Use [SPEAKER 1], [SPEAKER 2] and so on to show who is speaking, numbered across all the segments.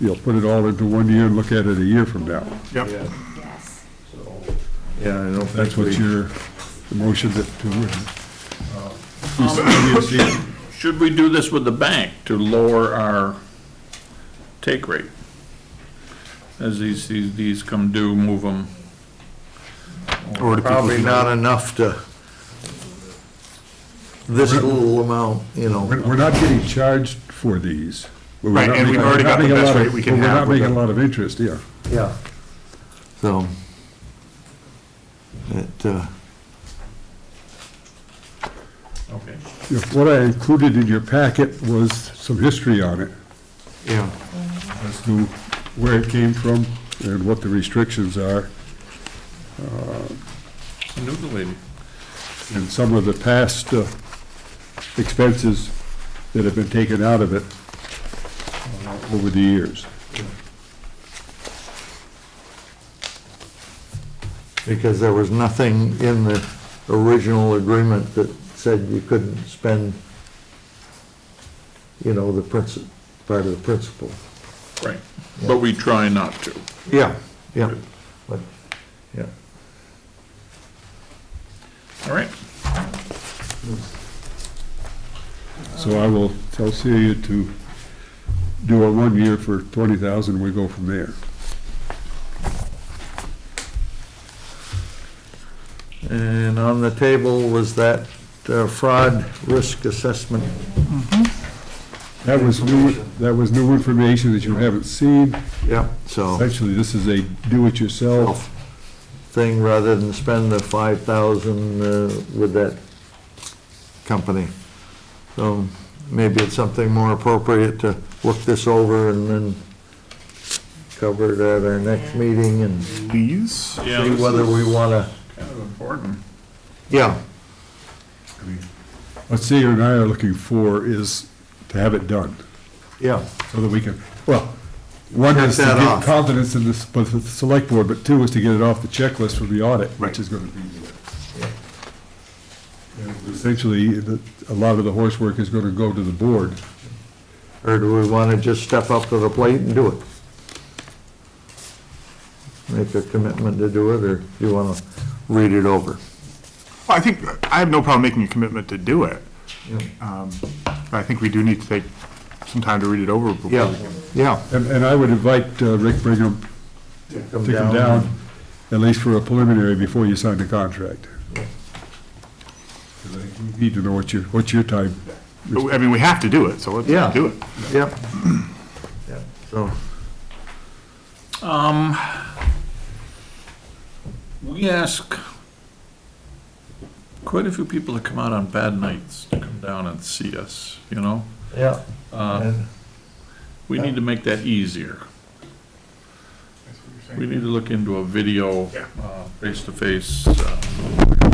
[SPEAKER 1] you know, put it all into one year and look at it a year from now.
[SPEAKER 2] Yep.
[SPEAKER 3] Yes.
[SPEAKER 2] Yeah, I don't
[SPEAKER 1] That's what
[SPEAKER 2] you
[SPEAKER 1] your, the motion that, to, uh, we s-
[SPEAKER 4] um,
[SPEAKER 1] we see.
[SPEAKER 5] Should we do this with the bank to lower our take rate? As these, these, these come due, move them.
[SPEAKER 2] Probably not enough to, this little amount, you know.
[SPEAKER 1] We're we're not getting charged for these. but we're
[SPEAKER 4] Right,
[SPEAKER 1] not
[SPEAKER 4] and we've
[SPEAKER 1] making-
[SPEAKER 4] already
[SPEAKER 1] we're not
[SPEAKER 4] got the
[SPEAKER 1] making a
[SPEAKER 4] best
[SPEAKER 1] lot of-
[SPEAKER 4] rate we can
[SPEAKER 1] but
[SPEAKER 4] have
[SPEAKER 1] We're
[SPEAKER 4] with
[SPEAKER 1] not making
[SPEAKER 4] the-
[SPEAKER 1] a lot of interest, yeah.
[SPEAKER 2] Yeah. So, it, uh,
[SPEAKER 5] Okay.
[SPEAKER 1] If What I included in your packet was some history on it,
[SPEAKER 2] yeah,
[SPEAKER 1] as to where it came from and what the restrictions are.
[SPEAKER 5] It's a new lady.
[SPEAKER 1] and some of the past uh, expenses that have been taken out of it uh, over the years.
[SPEAKER 2] because there was nothing in the original agreement that said you couldn't spend, you know, the princi, part of the principal.
[SPEAKER 5] Right, but we try not to.
[SPEAKER 2] Yeah, yeah, but, yeah.
[SPEAKER 5] All right,
[SPEAKER 1] So I will tell Celia to do a one year for twenty thousand, we go from there.
[SPEAKER 2] And on the table was that uh, fraud risk assessment.
[SPEAKER 1] That was new, that was new information that you haven't seen.
[SPEAKER 2] Yeah, so,
[SPEAKER 1] Essentially, this is a do-it-yourself.
[SPEAKER 2] thing rather than spend the five thousand uh, with that company. So maybe it's something more appropriate to look this over and then cover it at our next meeting and see
[SPEAKER 4] Please?
[SPEAKER 5] yeah, this
[SPEAKER 2] whether
[SPEAKER 5] is
[SPEAKER 2] we want to,
[SPEAKER 5] kind of important.
[SPEAKER 2] yeah, Oh.
[SPEAKER 1] What Celia and I are looking for is to have it done,
[SPEAKER 2] yeah,
[SPEAKER 1] so that we can, well, one
[SPEAKER 2] Check
[SPEAKER 1] is to
[SPEAKER 2] that
[SPEAKER 1] get
[SPEAKER 2] off.
[SPEAKER 1] confidence in this, but the select board, but two is to get it off the checklist for the audit,
[SPEAKER 4] Right.
[SPEAKER 1] which is gonna be. Essentially, the- a lot of the horse work is gonna go to the board.
[SPEAKER 2] or do we want to just step up to the plate and do it? Make a commitment to do it, or you want to read it over?
[SPEAKER 4] I think, I have no problem making a commitment to do it. Um, but I think we do need to take some time to read it over. before we
[SPEAKER 2] Yeah,
[SPEAKER 4] can-
[SPEAKER 2] yeah.
[SPEAKER 1] And, and I would invite uh, Rick Brigham
[SPEAKER 2] Come
[SPEAKER 1] to come down, at least for a preliminary, before you sign the contract. 'Cause I think you Need to know what your, what your time,
[SPEAKER 4] But, I mean, we have to do it, so let's
[SPEAKER 2] Yeah.
[SPEAKER 4] do it.
[SPEAKER 2] Yep. Yep, So,
[SPEAKER 5] Um, we ask quite a few people to come out on bad nights to come down and see us, you know?
[SPEAKER 2] yeah.
[SPEAKER 5] Uh,
[SPEAKER 2] and-
[SPEAKER 5] we need to make that easier. We need to look into a video,
[SPEAKER 4] Yeah.
[SPEAKER 5] uh, face-to-face, uh,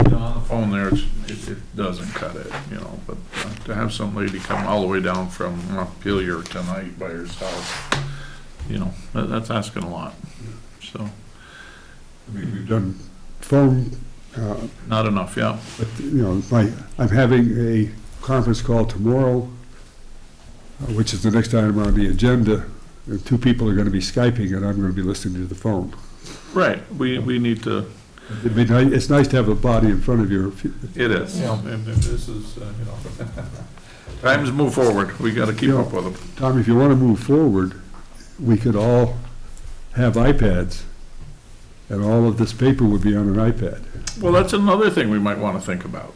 [SPEAKER 5] you know, on the phone there, it's- it, it doesn't cut it, you know, but uh, to have some lady come all the way down from Montpelier tonight by herself, you know, that, that's asking a lot, so,
[SPEAKER 1] I mean, we've done phone, uh,
[SPEAKER 5] not enough, yeah.
[SPEAKER 1] But, you know, my, I'm having a conference call tomorrow, uh, which is the next item on the agenda. And two people are gonna be Skyping and I'm gonna be listening to the phone.
[SPEAKER 5] Right, we, we need to,
[SPEAKER 1] It'd be ni- it's nice to have a body in front of you. if you-
[SPEAKER 5] it is,
[SPEAKER 2] Yeah.
[SPEAKER 5] and if this is, uh, you know, times move forward, we gotta keep up with them.
[SPEAKER 1] Tom, if you wanna move forward, we could all have iPads and all of this paper would be on an iPad.
[SPEAKER 5] Well, that's another thing we might want to think about.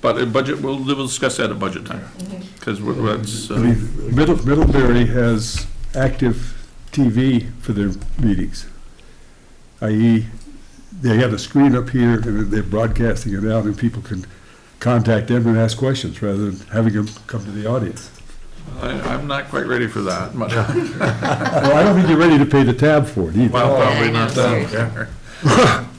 [SPEAKER 5] But at budget, we'll, we'll discuss that at budget time,
[SPEAKER 3] Mm-hmm.
[SPEAKER 5] because that's,
[SPEAKER 1] I
[SPEAKER 5] uh,
[SPEAKER 1] mean, Middle- Middlebury has active TV for their meetings, i.e., they have a screen up here, and they're broadcasting it out, and people can contact them and ask questions, rather than having them come to the audience.
[SPEAKER 5] I, I'm not quite ready for that, but, well,
[SPEAKER 1] Well, I don't think you're ready to pay the tab for it either.
[SPEAKER 5] probably
[SPEAKER 3] I know,
[SPEAKER 5] not
[SPEAKER 4] sorry.
[SPEAKER 5] that.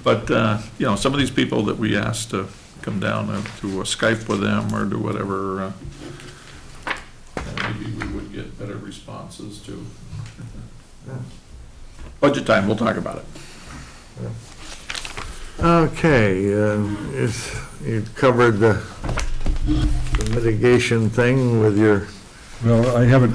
[SPEAKER 5] But, uh, you know, some of these people that we asked to come down and to uh, Skype with them or do whatever, uh, maybe we would get better responses to. Budget time, we'll talk about it.
[SPEAKER 2] Okay, uh, is, you covered the the mitigation thing with your
[SPEAKER 1] Well, I haven't